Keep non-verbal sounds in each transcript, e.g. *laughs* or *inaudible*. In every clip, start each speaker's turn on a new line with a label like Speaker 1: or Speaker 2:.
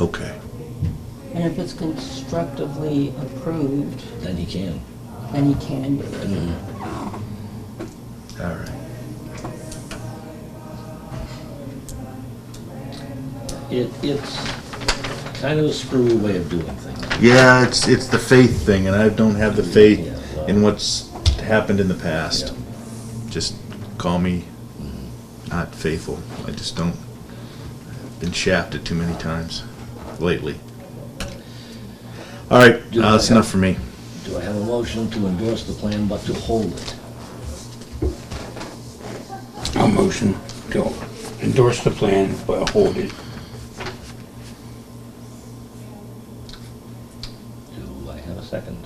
Speaker 1: Okay.
Speaker 2: And if it's constructively approved,
Speaker 3: Then he can.
Speaker 2: then he can do it.
Speaker 3: Mm-hmm.
Speaker 1: All right.
Speaker 3: It, it's kind of a screwy way of doing things.
Speaker 1: Yeah, it's it's the faith thing, and I don't have the faith in what's happened in the past. Just call me
Speaker 3: Mm-hmm.
Speaker 1: not faithful. I just don't. I've been shafted too many times lately. All right, uh, that's enough for me.
Speaker 3: Do I have a motion to endorse the plan but to hold it?
Speaker 4: I'll motion to endorse the plan, but hold it.
Speaker 3: Do I have a second?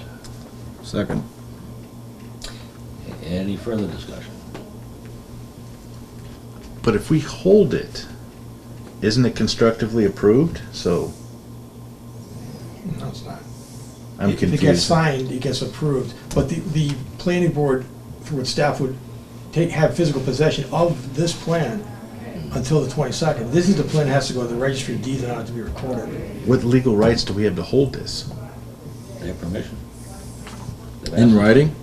Speaker 1: Second.
Speaker 3: Any further discussion?
Speaker 1: But if we hold it, isn't it constructively approved? So
Speaker 5: No, it's not.
Speaker 1: I'm
Speaker 5: If
Speaker 1: confused.
Speaker 5: It gets signed, it gets approved, but the, the planning board, through its staff, would take, have physical possession of this plan until the twenty-second. This is the plan that has to go to the registry of deeds and ought to be recorded.
Speaker 1: What legal rights do we have to hold this?
Speaker 3: Their permission? They've
Speaker 1: In
Speaker 3: asked-
Speaker 1: writing?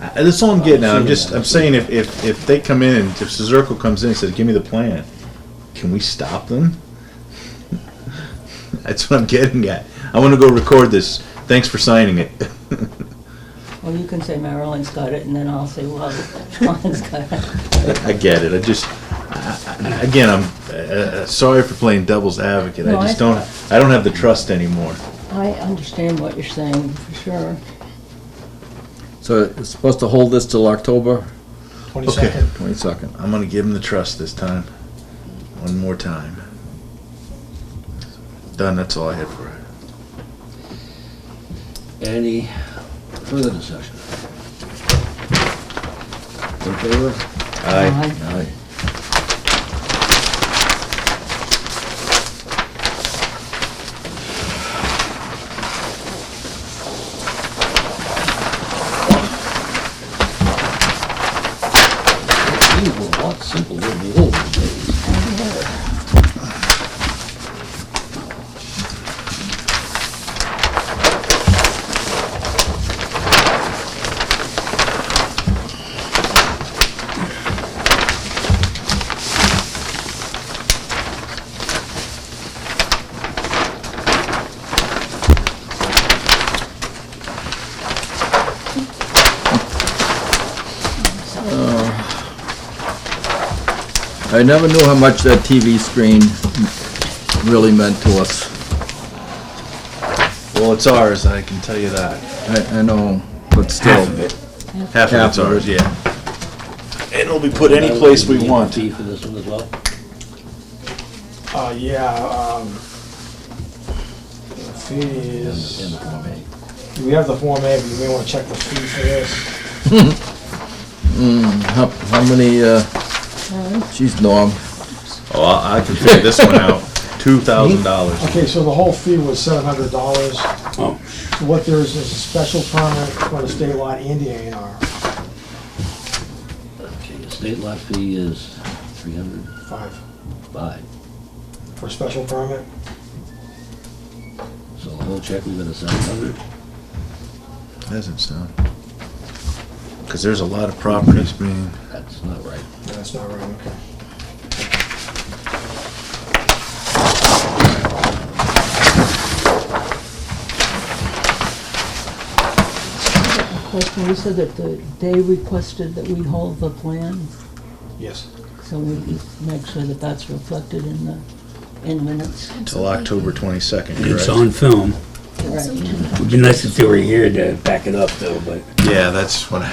Speaker 1: I- That's all I'm getting at, I'm just, I'm saying if, if, if they come in and if Suzeraco comes in and says, give me the plan, can we stop them? *laughs* That's what I'm getting at, I wanna go record this, thanks for signing it. *laughs*
Speaker 2: Well, you can say Marilyn's got it, and then I'll say, well, Sean's got it.
Speaker 1: I get it, I just, I- I- again, I'm, uh, uh, sorry for playing devil's advocate, I
Speaker 2: No,
Speaker 1: just
Speaker 2: I-
Speaker 1: don't, I don't have the trust anymore.
Speaker 2: I understand what you're saying, for sure.
Speaker 6: So it's supposed to hold this till October
Speaker 1: Okay,
Speaker 5: Twenty-second,
Speaker 6: twenty-second.
Speaker 1: I'm gonna give him the trust this time. One more time. Done, that's all I had for it.
Speaker 3: Any further discussion? In favor?
Speaker 2: Aye.
Speaker 3: Aye. These were a lot simpler than the old days.
Speaker 2: Uh,
Speaker 6: I never knew how much that TV screen really meant to us.
Speaker 1: Well, it's ours, I can tell you that.
Speaker 6: I, I know, but still.
Speaker 4: Half of it.
Speaker 1: Half of it's
Speaker 6: Half of
Speaker 1: ours,
Speaker 6: it.
Speaker 1: yeah. And it'll be put any place we
Speaker 3: Need a
Speaker 1: want.
Speaker 3: fee for this one as well?
Speaker 5: uh, yeah, um, the fee
Speaker 3: In the
Speaker 5: is,
Speaker 3: Form A.
Speaker 5: we have the Form A, but you may wanna check the fee for this.
Speaker 6: How, how many, uh, geez, Norm,
Speaker 1: Oh, I I can figure this one out. Two thousand dollars.
Speaker 5: Okay, so the whole fee was seven hundred dollars.
Speaker 4: Oh,
Speaker 5: What there is, is a special permit for the state lot and the A and R,
Speaker 3: Okay, the state lot fee is three hundred
Speaker 5: five,
Speaker 3: five,
Speaker 5: for a special permit.
Speaker 3: so the whole check we've got is seven hundred.
Speaker 1: Doesn't sound. Cause there's a lot of properties being,
Speaker 3: That's not right.
Speaker 5: That's not right, okay.
Speaker 2: A Question, you said that the, they requested that we hold the plan,
Speaker 5: Yes.
Speaker 2: so we make sure that that's reflected in the, in minutes.
Speaker 1: till October twenty-second,
Speaker 4: it's
Speaker 1: correct?
Speaker 4: on film.
Speaker 2: Right.
Speaker 4: Would be nice if they were here to back it up though, but
Speaker 1: Yeah, that's what I,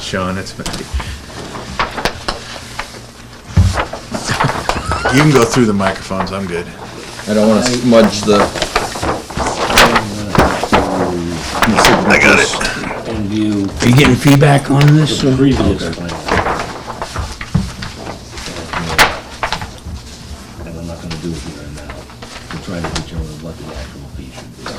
Speaker 1: Sean, it's. You can go through the microphones, I'm good.
Speaker 6: I don't wanna smudge the,
Speaker 1: I got it.
Speaker 3: And view
Speaker 4: are you getting feedback on this?
Speaker 3: the
Speaker 4: or-
Speaker 3: previous plan. And I'm not gonna do it here and now, to try to determine what the actual fee should be.